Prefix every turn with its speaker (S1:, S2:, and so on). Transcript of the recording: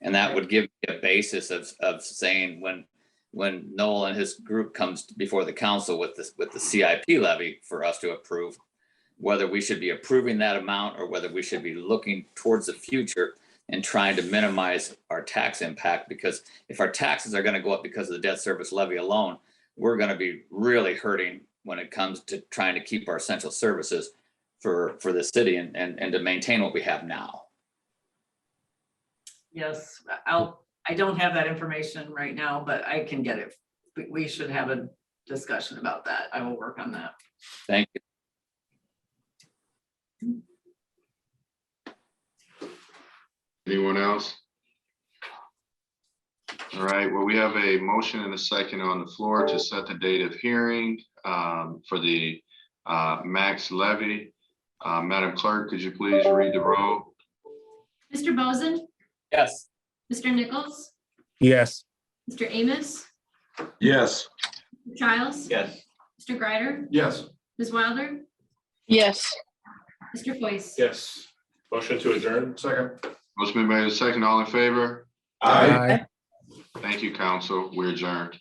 S1: And that would give me a basis of, of saying when, when Noel and his group comes before the council with this, with the CIP levy for us to approve, whether we should be approving that amount or whether we should be looking towards the future and trying to minimize our tax impact, because if our taxes are gonna go up because of the debt service levy alone, we're gonna be really hurting when it comes to trying to keep our essential services for, for the city and, and, and to maintain what we have now.
S2: Yes, I'll, I don't have that information right now, but I can get it. We, we should have a discussion about that. I will work on that.
S1: Thank you.
S3: Anyone else? All right, well, we have a motion and a second on the floor to set the date of hearing um, for the uh, max levy. Uh, Madam Clerk, could you please read the roll?
S4: Mr. Bozen,
S1: Yes.
S4: Mr. Nichols,
S5: Yes.
S4: Mr. Amos,
S6: Yes.
S4: Mr. Childs,
S6: Yes.
S4: Mr. Greider,
S6: Yes.
S4: Ms. Wilder,
S7: yes.
S4: Mr. Foyce.
S8: Yes. Motion to adjourn? Second.
S3: Motion been made and second, all in favor?
S5: Aye.
S3: Thank you, council. We are adjourned.